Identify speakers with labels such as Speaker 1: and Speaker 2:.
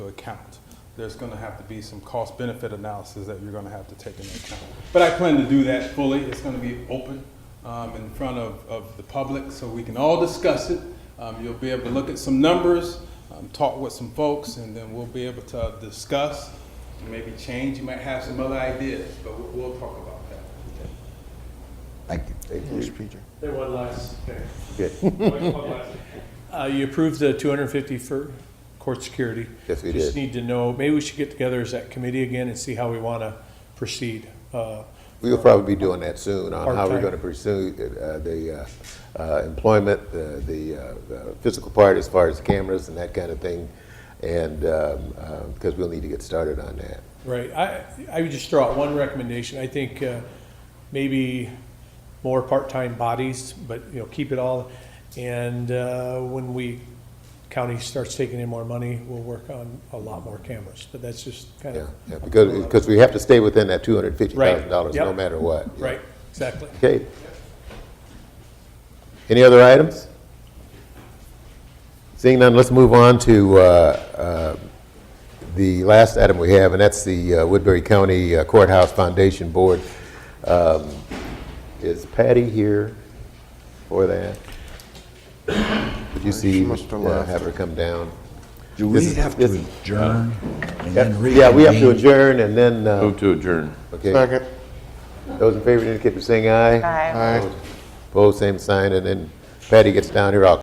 Speaker 1: account. There's going to have to be some cost benefit analysis that you're going to have to take into account. But I plan to do that fully. It's going to be open um, in front of, of the public so we can all discuss it. Um, you'll be able to look at some numbers, um, talk with some folks, and then we'll be able to discuss, maybe change. You might have some other ideas, but we'll, we'll talk about that.
Speaker 2: Thank you.
Speaker 3: Mr. Peter.
Speaker 4: There one last thing.
Speaker 2: Good.
Speaker 4: One- one last thing. Uh, You approved the 250 for court security.
Speaker 2: Yes, we
Speaker 4: Just
Speaker 2: did.
Speaker 4: need to know, maybe we should get together as that committee again and see how we want to proceed. Uh,
Speaker 2: We'll probably be doing that soon on how we're
Speaker 4: Part-time.
Speaker 2: going to pursue uh, the uh, uh, employment, uh, the uh, the physical part as far as cameras and that kind of thing, and, because we'll need to get started on that.
Speaker 4: Right, I, I would just throw out one recommendation, I think uh, maybe more part-time bodies, but, you know, keep it all. And uh, when we, county starts taking in more money, we'll work on a lot more cameras, but that's just kind
Speaker 2: Yeah,
Speaker 4: of,
Speaker 2: yeah, because, because we have to stay within that $250,000
Speaker 4: Right,
Speaker 2: no
Speaker 4: yep.
Speaker 2: matter what. Yeah.
Speaker 4: right, exactly.
Speaker 2: Okay. Any other items? Seeing none, let's move on to uh, uh, the last item we have, and that's the uh, Woodbury County Courthouse Foundation Board. Um, Is Patty here for that? Could you
Speaker 3: She
Speaker 2: see,
Speaker 3: must have
Speaker 2: uh,
Speaker 3: left.
Speaker 2: have her come down?
Speaker 5: Do
Speaker 2: This
Speaker 5: we
Speaker 2: is-
Speaker 5: have
Speaker 2: this-
Speaker 5: to adjourn and then reconvene?
Speaker 2: Yeah, we have to adjourn and then, uh,
Speaker 6: Move to adjourn.
Speaker 2: okay.
Speaker 3: Second.
Speaker 2: Those in favor indicate by saying aye.
Speaker 3: Aye.
Speaker 2: Opposed, same sign, and then Patty gets down here, I'll